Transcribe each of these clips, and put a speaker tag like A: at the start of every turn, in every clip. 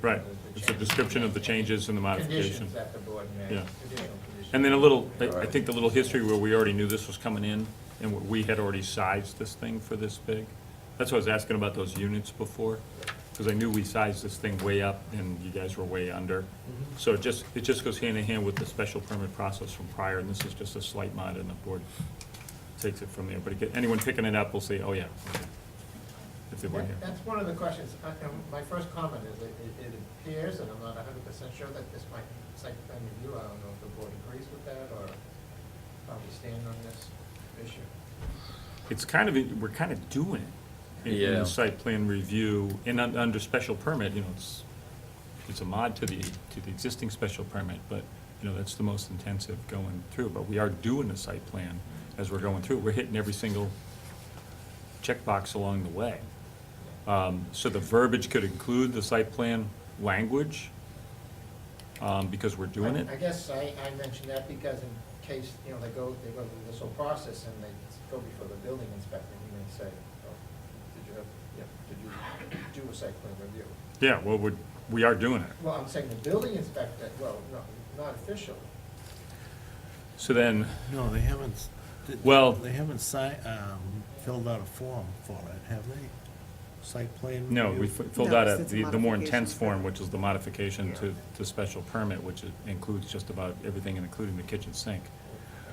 A: Right, it's a description of the changes and the modification.
B: Conditions that the board made,
A: Yeah.
B: additional conditions.
A: And then a little, I I think the little history where we already knew this was coming in, and where we had already sized this thing for this big. That's why I was asking about those units before, because I knew we sized this thing way up, and you guys were way under.
B: Mm-hmm.
A: So it just, it just goes hand in hand with the special permit process from prior, and this is just a slight mod, and the board takes it from there. But again, anyone picking it up will say, oh, yeah, okay," if they were here.
B: That- That's one of the questions, I- and my first comment is, it, it- it appears, and I'm not hundred percent sure that this might, site plan review, I don't know if the board agrees with that, or how we stand on this issue.
A: it's kind of, we're kind of doing it. in- In
C: Yeah.
A: the site plan review, and un- under special permit, you know, it's, it's a mod to the, to the existing special permit, but, you know, that's the most intensive going through, but we are doing the site plan as we're going through, we're hitting every single checkbox along the way. Um, so the verbiage could include the site plan language, um, because we're doing
B: I-
A: it.
B: I guess I, I mentioned that because in case, you know, they go, they go through this whole process and they go before the building inspector, and he may say, oh, did you have, yeah, did you do a site plan review?
A: Yeah, well, we're, we are doing it.
B: Well, I'm saying the building inspector, well, no, not official,
A: So then,
D: No, they haven't, s- th-
A: Well-
D: They haven't si, um, filled out a form for it, have they? Site plan?
A: No,
D: review?
A: we fi- filled
E: No,
A: out a-
E: it's- it's a
A: the, the more intense
E: modification.
A: form, which is the modification to, to special permit, which i- includes just about everything, including the kitchen sink.
B: I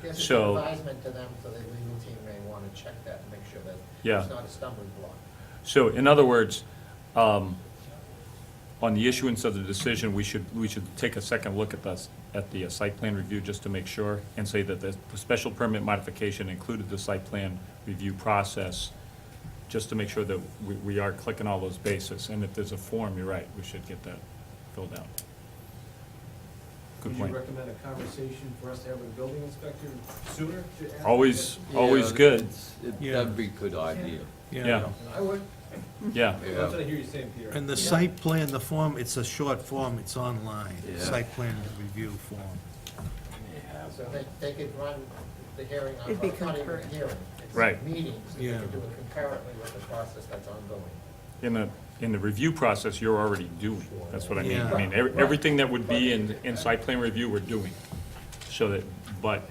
B: guess it's an
A: So-
B: advisement to them, so the legal team may want to check that and make sure that
A: Yeah.
B: it's not a stumbling block.
A: So in other words, um, on the issuance of the decision, we should, we should take a second look at the, s- at the uh, site plan review just to make sure and say that the the special permit modification included the site plan review process, just to make sure that we, we are clicking all those bases. And if there's a form, you're right, we should get that filled out. Good
F: Would
A: point.
F: you recommend a conversation for us to have with the building inspector sooner to ask?
A: Always,
C: Yeah,
A: always good,
C: it's- it-
D: Yeah.
C: That'd be a good idea.
A: Yeah.
B: I would,
A: yeah.
F: That's what I hear you saying, Peter.
D: And the site plan, the form, it's a short form, it's online,
C: Yeah.
D: site plan review form.
B: so they, they could run the hearing, on-
E: It'd be
B: not even a
E: concurrent.
B: hearing. it's
A: Right.
B: Meetings, they
D: Yeah.
B: could do it concurrently with the process that's ongoing.
A: In the, in the review process, you're already doing, that's what I mean. I mean, ev- everything that would be in, in site plan review, we're doing. So that, but,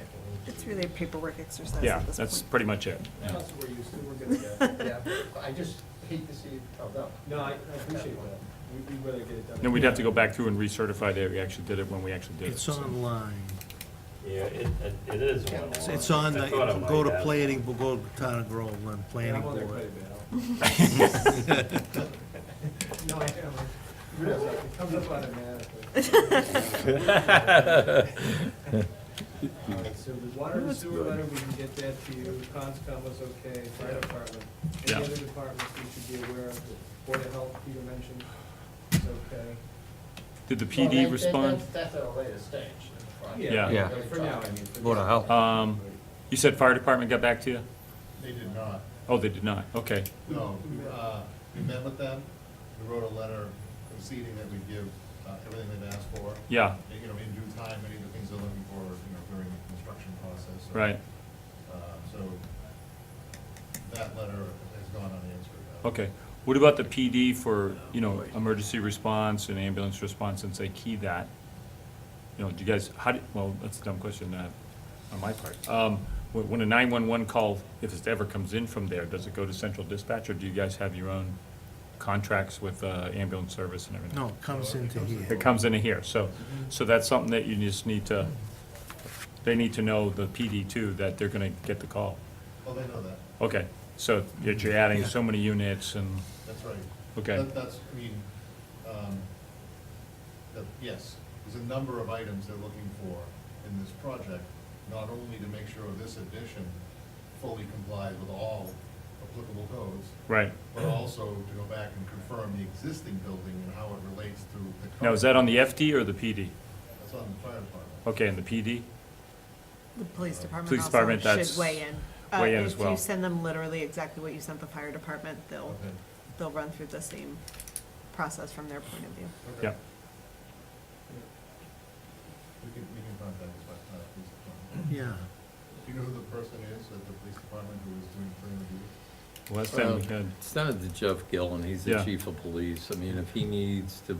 E: It's really a paperwork exercise
A: yeah,
E: at this
A: that's
E: point.
A: pretty much it.
F: That's what we're used to, we're good to go.
B: Yeah, but I just hate to see it held up.
F: No, I I appreciate that. We- We'd rather get it done.
A: Then we'd have to go back through and recertify that we actually did it when we actually did it.
D: It's
A: so.
D: online.
G: Yeah, it, it- it is one
D: It's-
G: on.
D: It's on,
G: I
D: the-
G: thought I might
D: go to
G: have.
D: planning, we'll go to town of Groveland,
F: Yeah,
D: planning
F: I'm on there quite
D: board.
F: a bit. I'll- No, I am. Really, it comes up automatically. All right, so the water and sewer letter, we can get that to you, Conscom was okay, fire department.
A: Yeah.
F: Any other departments we should be aware of, The Board of Health, Peter mentioned, is okay.
A: Did the
B: Well, they-
A: PD
B: they-
A: respond?
B: that's- That's at a later stage in the project.
A: Yeah.
C: Yeah.
B: Really
F: For now, I
B: talking.
F: mean. for
C: Board of
F: now.
C: Health.
A: Um, you said fire department got back to you?
H: They did not.
A: Oh, they did not, okay.
H: No, uh, we met with them, we wrote a letter conceding that we'd give uh, everything they've asked for.
A: Yeah,
H: And, You know, in due time, many of the things they're looking for, you know, during the construction process. So,
A: right,
H: uh, So that letter has gone unanswered. Uh,
A: okay. What about the PD for, you know, emergency response and ambulance response since they key that? You know, do you guys, how, do- well, that's a dumb question uh, on my part. Um, When when a 911 call, if it ever comes in from there, does it go to central dispatch, or do you guys have your own contracts with uh, ambulance service and everything?
D: No, it comes into
A: It
D: here.
A: comes into here, so, so that's something that you just need to, they need to know, the PD too, that they're going to get the call.
H: Well, Oh, they know that,
A: Okay, so you're you're adding so many units and,
H: that's right.
A: Okay.
H: That- That's, I mean, um, that- yes, there's a number of items they're looking for in this project, not only to make sure this addition fully complies with all applicable codes,
A: right.
H: but also to go back and confirm the existing building and how it relates to the.
A: Now, is that on the FD or the PD?
H: That's on the fire department.
A: Okay, and the PD?
E: The police
A: Police
E: department
A: department,
E: also
A: that's-
E: should weigh in. Uh,
A: weigh in as
E: If
A: well.
E: you send them literally exactly what you sent the fire department,
A: Oh.
E: they'll,
H: Okay.
E: they'll run through the same process from their point of view.
H: Okay.
A: Yeah.
H: We can, we can contact the fire- uh, police department.
D: Yeah.
H: Do you know who the person is at the police department who is doing plan review?
A: Last time we
C: Um,
A: had.
C: Send it to Jeff Gillen, he's the
A: Yeah.
C: chief of police. I mean, if he needs to